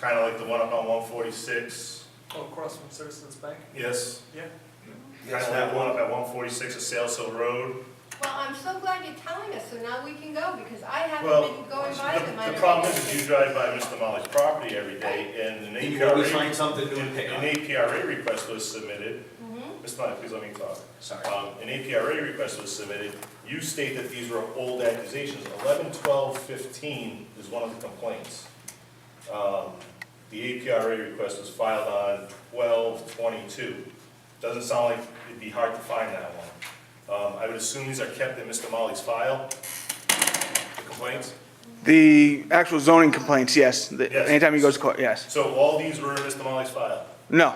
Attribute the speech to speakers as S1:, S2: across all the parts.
S1: kind of like the one up on one forty-six,
S2: Oh, across from Citizens Bank?
S1: yes?
S2: Yeah.
S1: Kind of that one up at one forty-six of Sail Hill Road.
S3: Well, I'm so glad you're telling us, so now we can go, because I
S1: Well,
S3: haven't been going by them. I
S1: The the
S3: don't
S1: problem
S3: know.
S1: is that you drive by Mr. Molly's property every day and an
S4: You can always
S1: APRA,
S4: find something new and pick
S1: an
S4: on.
S1: APRA request was submitted.
S3: Mhm.
S1: Mr. Molly, please let me talk.
S4: Sorry.
S1: Um, an APRA request was submitted, you state that these were old accusations, eleven, twelve, fifteen is one of the complaints. Um, the APRA request was filed on twelve, twenty-two, doesn't sound like it'd be hard to find that one. Um, I would assume these are kept in Mr. Molly's file, the complaints?
S5: The actual zoning complaints, yes. The-
S1: Yes.
S5: Anytime he goes to court, yes.
S1: So all these were in Mr. Molly's file,
S5: No,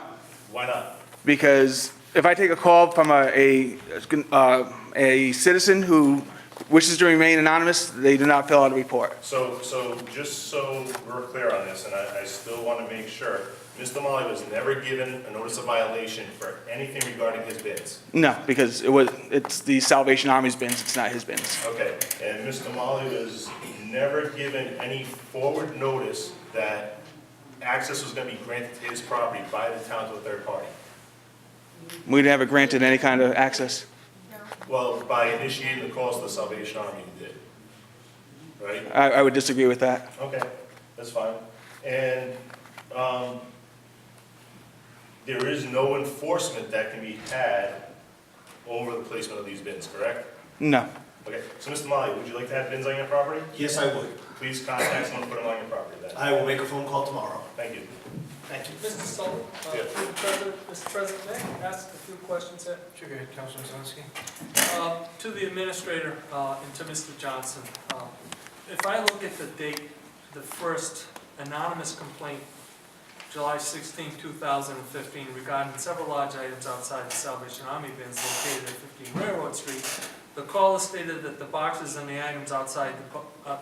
S1: why not?
S5: because if I take a call from a, a, uh, a citizen who wishes to remain anonymous, they do not fill out a report.
S1: So, so just so we're clear on this, and I, I still want to make sure, Mr. Molly was never given a notice of violation for anything regarding his bids.
S5: No, because it was, it's the Salvation Army's bins, it's not his bins.
S1: Okay, and Mr. Molly was never given any forward notice that access was going to be granted to his property by the town to a third party.
S5: We never granted any kind of access.
S1: Well, by initiating the calls to the Salvation Army, he did. Right?
S5: I, I would disagree with that.
S1: Okay, that's fine. And, um, there is no enforcement that can be had over the placement of these bins, correct?
S5: No.
S1: Okay, so Mr. Molly, would you like to have bins on your property?
S4: Yes, I would.
S1: Please contact someone to put them on your property then.
S4: I will make a phone call tomorrow.
S1: Thank you.
S4: Thank you.
S2: Mr. Sullivan, uh,
S1: Yeah.
S2: through the President, Mr. President, may I ask a few questions here?
S6: Sure, go ahead, Councilman Zalinski.
S2: Uh, To the administrator uh, and to Mr. Johnson, uh, if I look at the date, the first anonymous complaint, July 16, 2015, regarding several large items outside the Salvation Army bins located at 15 Railroad Street, the caller stated that the boxes and the items outside the, po- uh,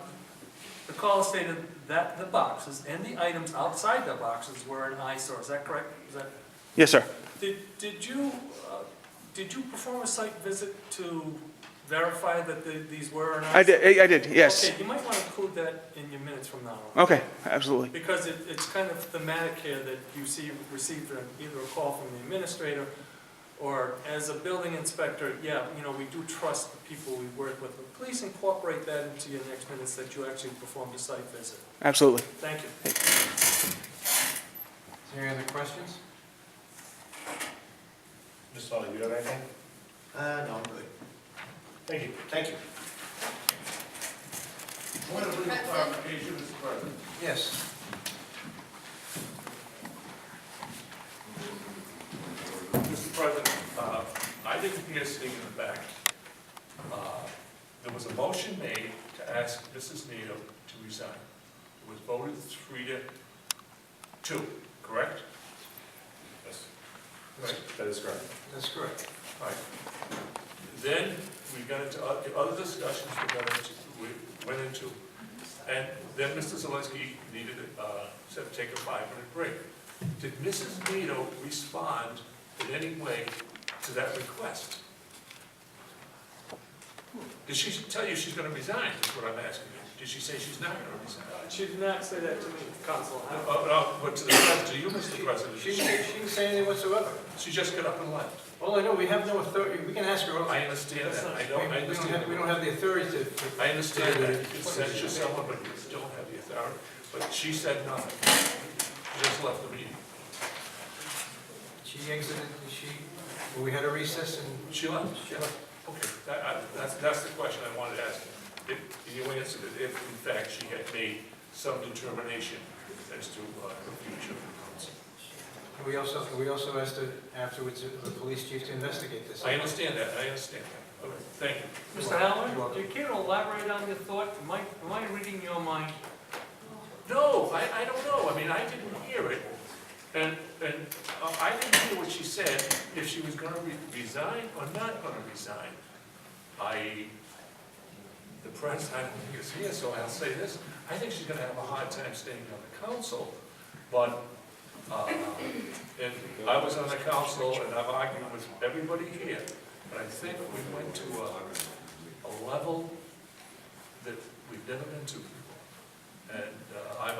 S2: the caller stated that the boxes and the items outside the boxes were an eyesore, is that correct? Is that
S5: Yes, sir.
S2: did, did you, uh, did you perform a site visit to verify that the- these were or not?
S5: I did, I did, yes.
S2: Okay, you might want to include that in your minutes from now on,
S5: Okay, absolutely.
S2: because it, it's kind of thematic here that you see, received a- either a call from the administrator, or as a building inspector, yeah, you know, we do trust the people we work with, but please incorporate that into your next minutes that you actually performed a site visit.
S5: Absolutely.
S2: Thank you.
S6: Is there any other questions?
S1: Mr. Molly, do you have anything?
S4: Uh, no, I'm good.
S1: Thank you.
S4: Thank you.
S7: Point of legal
S3: That's it.
S7: clarification, Mr. President.
S6: Yes.
S7: Mr. President, uh, I didn't hear sitting in the back. Uh, There was a motion made to ask Mrs. Nato to resign. It was voted three to two, correct?
S1: Yes,
S7: Right.
S1: That is correct.
S6: That's correct.
S7: Right. Then we got into oth- the other discussions we got into, we went into. And then Mr. Zelinski needed, uh, said take a five-minute break. Did Mrs. Nito respond in any way to that request? Did she tell you she's gonna resign, is what I'm asking you? Did she say she's not gonna resign?
S2: She did not say that to me, Council.
S7: No, oh, no, but to the, pres- to you, Mr. President,
S6: She didn't, she didn't say anything whatsoever.
S7: she just got up and left.
S6: All I know, we have no authority, we can ask her. all-
S7: I understand that, I
S6: We
S7: don't, I
S6: we don't have,
S7: understand.
S6: we don't have the authority to. to-
S7: I understand that you can censure someone, but you don't have the authority, but she said nothing. She Just left the meeting.
S6: She exited, she, well, we had a recess and.
S7: She left? She left. Okay, that, I, that's, that's the question I wanted to ask. If, you answered it, if in fact she had made some determination as to, uh, the future of the council.
S6: And we also, we also asked her afterwards, uh, the police chief to investigate this.
S7: I understand that, I understand that. Okay, thank you.
S2: Mr. Halloran, do you care to elaborate on your thought? Am I, am I reading your mind?
S7: No, I, I don't know, I mean, I didn't hear it, and, and uh, I didn't hear what she said, if she was gonna re- resign or not gonna resign. I, the press, I don't think is here, so I'll say this, I think she's gonna have a hard time staying on the council, but, uh, and I was on the council, and I've argued with everybody here, but I think we went to a, a level that we've never been to before. And uh, I've